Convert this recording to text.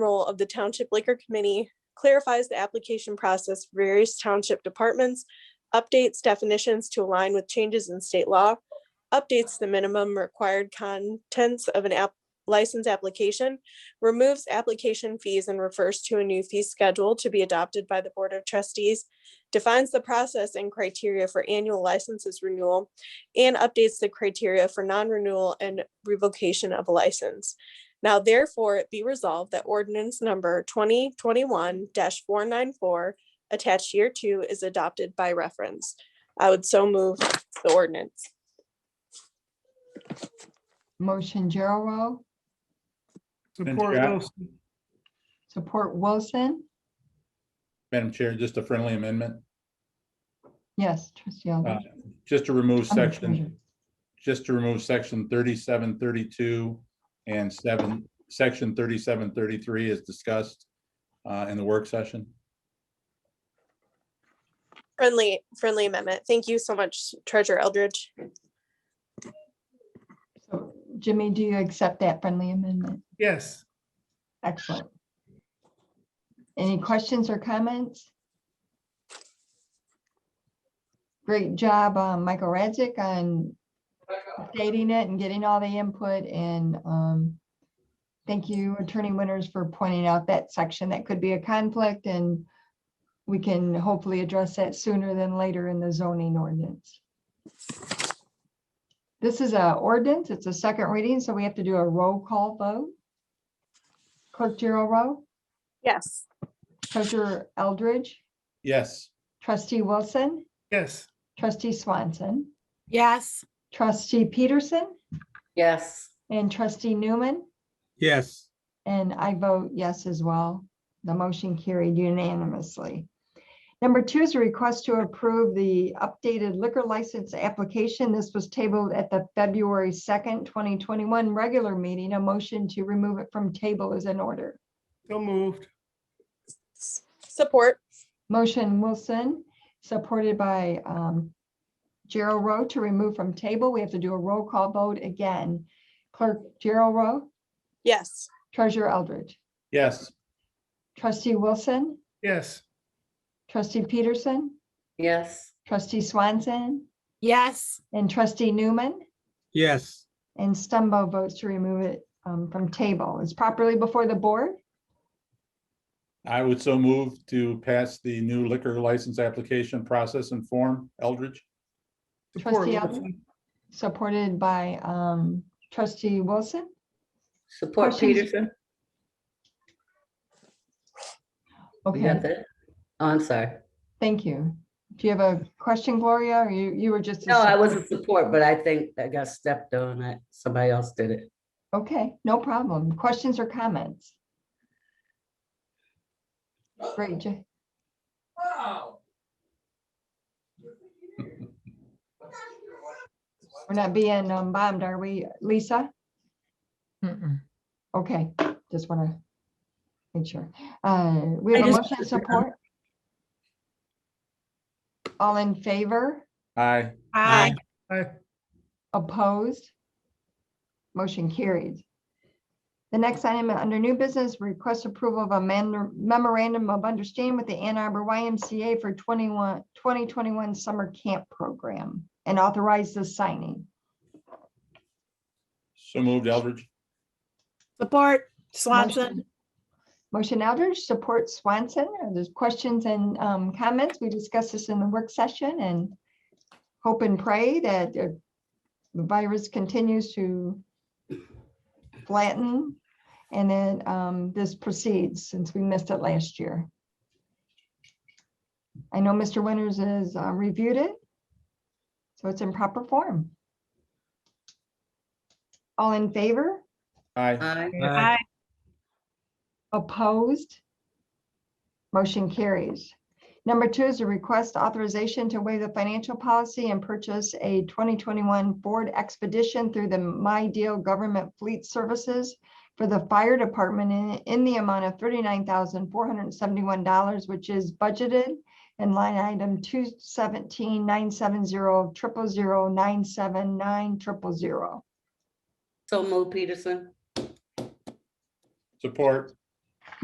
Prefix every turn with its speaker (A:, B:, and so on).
A: role of the Township Liquor Committee, clarifies the application process for various township departments, updates definitions to align with changes in state law, updates the minimum required contents of an app license application, removes application fees and refers to a new fee schedule to be adopted by the Board of Trustees, defines the process and criteria for annual licenses renewal, and updates the criteria for non-renewal and revocation of a license. Now therefore it be resolved that ordinance number twenty twenty-one four nine four attached year two is adopted by reference. I would so move the ordinance.
B: Motion Gerald,
C: Support
D: Jack?
C: Wilson.
B: support Wilson.
D: Madam Chair, just a friendly amendment,
B: Yes, trustee Elder.
D: Uh, just to remove
B: Under
D: section,
B: Treasurer.
D: just to remove section thirty-seven thirty-two and seven, section thirty-seven thirty-three as discussed uh, in the work session.
A: Friendly, friendly amendment. Thank you so much Treasurer Eldridge.
B: So, Jimmy, do you accept that friendly amendment?
C: Yes,
B: Excellent. Any questions or comments? Great job, uh, Michael Radzik on updating it and getting all the input and um, thank you Attorney Winters for pointing out that section. That could be a conflict and we can hopefully address that sooner than later in the zoning ordinance. This is a ordinance. It's a second reading, so we have to do a roll call vote. Clerk Row,
A: Yes.
B: Treasurer Eldridge,
D: Yes,
B: Trustee Wilson,
C: yes,
B: Trustee Swanson,
E: Yes.
B: Trustee Peterson,
E: Yes.
B: and Trustee Newman.
F: Yes,
B: And I vote yes as well. The motion carried unanimously. Number two is a request to approve the updated liquor license application. This was tabled at the February 2nd, 2021 regular meeting. A motion to remove it from table is in order.
C: so moved.
A: S- Support.
B: Motion Wilson, supported by um, Gerald Rowe to remove from table. We have to do a roll call vote again. Clerk Gerald Rowe,
A: Yes.
B: Treasurer Eldridge,
D: yes,
B: Trustee Wilson,
C: Yes,
B: Trustee Peterson,
E: Yes.
B: Trustee Swanson,
E: Yes.
B: and Trustee Newman.
F: yes,
B: And Stumbo votes to remove it um, from table. It's properly before the board.
D: I would so move to pass the new liquor license application process and form. Eldridge?
C: support
B: Trustee Elder?
C: Wilson.
B: supported by um, Trustee Wilson.
E: Support
B: Questions?
E: Peterson? You
B: Okay,
E: got that? Oh, I'm sorry.
B: thank you. Do you have a question, Gloria? Or you, you were just.
E: No, I wasn't support, but I think I got stepped on. I- Somebody else did it.
B: Okay, no problem. Questions or comments? Great, Ja- We're not being um, bombed, are we, Lisa? Okay, just want to make sure. Uh, We have
E: I
B: a
E: just-
B: motion and support. All in favor?
D: Aye,
F: Aye.
C: Aye.
B: Opposed? Motion carried. The next item under new business, request approval of a man- memorandum of understanding with the Ann Arbor YMCA for 21 2021 summer camp program and authorize the signing.
D: so moved Eldridge.
G: Support Swanson.
B: Motion Eldridge, support Swanson. Are there questions and um, comments? We discussed this in the work session and hope and pray that uh, the virus continues to flatten and then um, this proceeds since we missed it last year. I know Mr. Winters has uh, reviewed it, so it's in proper form. All in favor?
D: Aye,
E: Aye.
F: Aye.
B: Opposed? Motion carries. Number two is a request authorization to waive the financial policy and purchase a 2021 Ford Expedition through the My Deal Government Fleet Services for the fire department in, in the amount of $39,471, which is budgeted in line item 217970000979000.
E: So move Peterson?
D: support.